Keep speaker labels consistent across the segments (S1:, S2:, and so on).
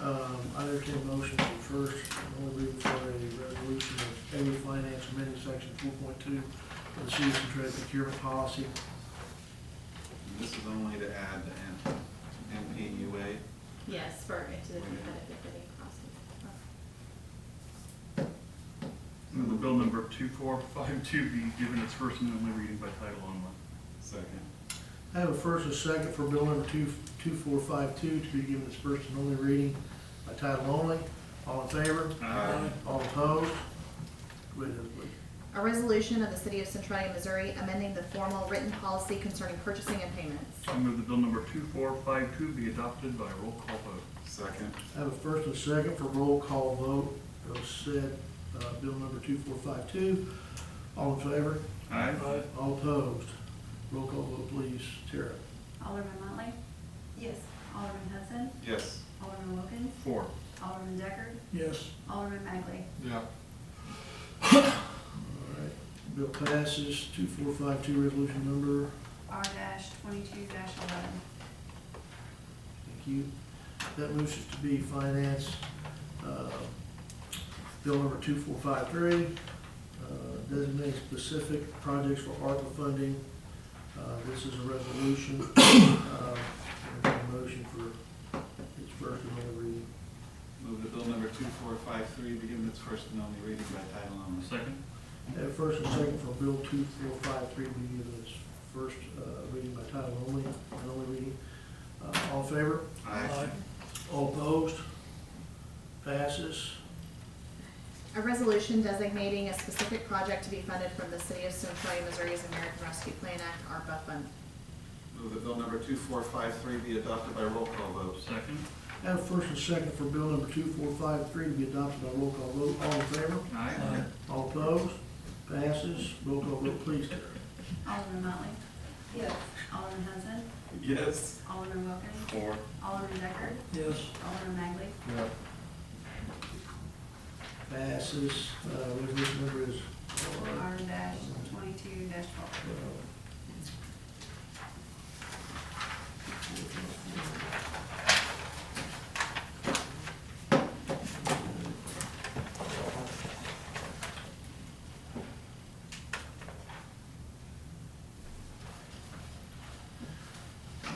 S1: Um, I entertain a motion for first, and only reading for a resolution of A, finance amending section four point two of the city's trade procurement policy.
S2: This is only to add the M- MPUA.
S3: Yes, for, into the competitive bidding process.
S4: Move the bill number 2452 be given its first and only reading by title only.
S2: Second.
S1: I have a first and a second for bill number two, two four five two to be given its first and only reading by title only. All in favor?
S2: Aye.
S1: All opposed? Go ahead, Ms. Blake.
S3: A resolution of the City of Centralia, Missouri, amending the formal written policy concerning purchasing and payments.
S4: I move the bill number 2452 be adopted by roll call vote.
S2: Second.
S1: I have a first and a second for roll call vote of said, uh, bill number two four five two. All in favor?
S4: Aye.
S1: All opposed? Roll call vote, please. Tara?
S5: Alderman Motley? Yes. Alderman Hudson?
S2: Yes.
S5: Alderman Wilkins?
S4: Four.
S5: Alderman Decker?
S1: Yes.
S5: Alderman Magley?
S2: Yeah.
S1: All right. Bill passes two four five two, resolution number,
S5: R dash twenty-two dash eleven.
S1: thank you. That moves us to be finance, uh, bill number two four five three, uh, designating specific projects for ARPA funding. Uh, this is a resolution, uh, and a motion for its first and only reading.
S2: Move the bill number two four five three be given its first and only reading by title only.
S4: Second.
S1: Have first and second for Bill two four five three be given its first uh, reading by title only, and only reading. Uh, All in favor?
S2: Aye.
S1: All opposed? Passes.
S3: A resolution designating a specific project to be funded from the City of Centralia, Missouri's American Rescue Plan Act, ARPA fund.
S2: Move the bill number two four five three be adopted by roll call vote.
S4: Second.
S1: Have first and second for Bill number two four five three to be adopted by roll call vote. All in favor?
S4: Aye.
S1: All opposed? Passes. Roll call vote, please, Tara.
S5: Alderman Motley? Yes. Alderman Hudson?
S2: Yes.
S5: Alderman Wilkins?
S2: Four.
S5: Alderman Decker?
S1: Yes.
S5: Alderman Magley?
S2: Yeah.
S1: Passes. Uh, Resolution number is
S5: R dash twenty-two dash twelve.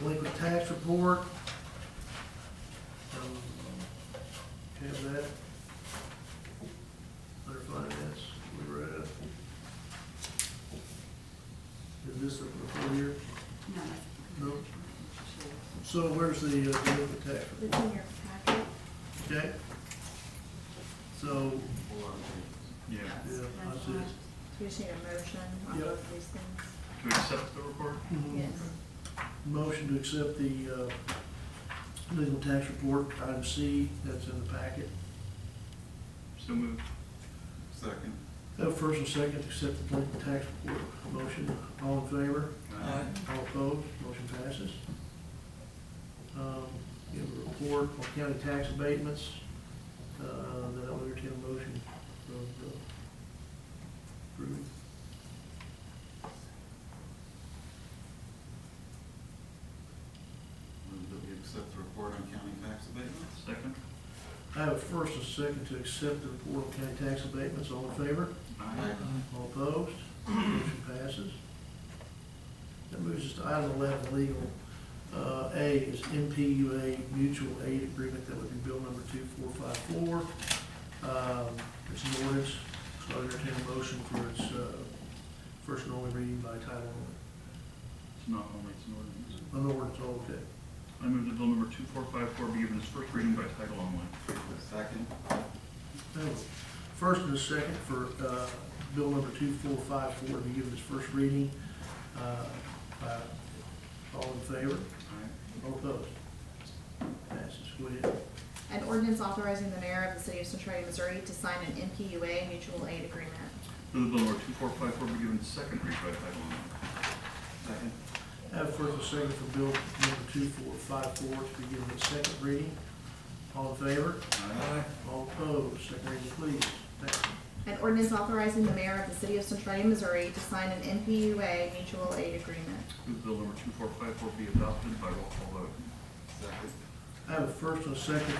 S1: Delinquent tax report. Um, Have that. Under finance, we read it. Is this the full year?
S5: No.
S1: No. So where's the uh, delinquent tax report?
S3: It's in your packet.
S1: Okay? So,
S2: Four.
S4: Yeah.
S1: yeah, I see it.
S3: We just need a motion on
S1: Yep. Mm-hmm.
S3: both of these things.
S4: To accept the report?
S1: Motion to accept the uh, legal tax report, item C, that's in the packet.
S4: So moved.
S2: Second.
S1: Have first and second, to accept the legal tax report. Motion, all in favor?
S2: Aye.
S1: All opposed? Motion passes. Um, We have a report on county tax abatements. Uh, That I'll entertain a motion of uh, approving.
S2: Move that we accept the report on county tax abatements.
S4: Second.
S1: I have a first and second to accept the report on county tax abatements. All in favor? All opposed? Motion passes. That moves us to item eleven, legal. Uh, A is MPUA mutual aid agreement, that would be bill number two four five four. Um, it's an ordinance, so I entertain a motion for its, uh, first and only reading by title
S4: It's not only, it's an ordinance.
S1: only. An ordinance, all okay.
S4: I move the bill number 2454 be given its first reading by title only.
S2: Second.
S1: No. First and a second for uh, bill number two four five four to be given its first reading. uh, by- All in favor?
S2: Aye.
S1: All opposed? Passes. Go ahead.
S3: An ordinance authorizing the mayor of the City of Centralia, Missouri to sign an MPUA mutual aid agreement.
S4: Move the bill number 2454 be given its second reading by title only.
S2: Second.
S1: Have first and second for bill number two four five four to be given its second reading. All in favor?
S2: Aye.
S1: All opposed? Second reading, please. Thank you.
S3: An ordinance authorizing the mayor of the City of Centralia, Missouri to sign an MPUA mutual aid agreement.
S4: Move bill number 2454 be adopted by roll call vote.
S2: Second.
S1: I have a first and a second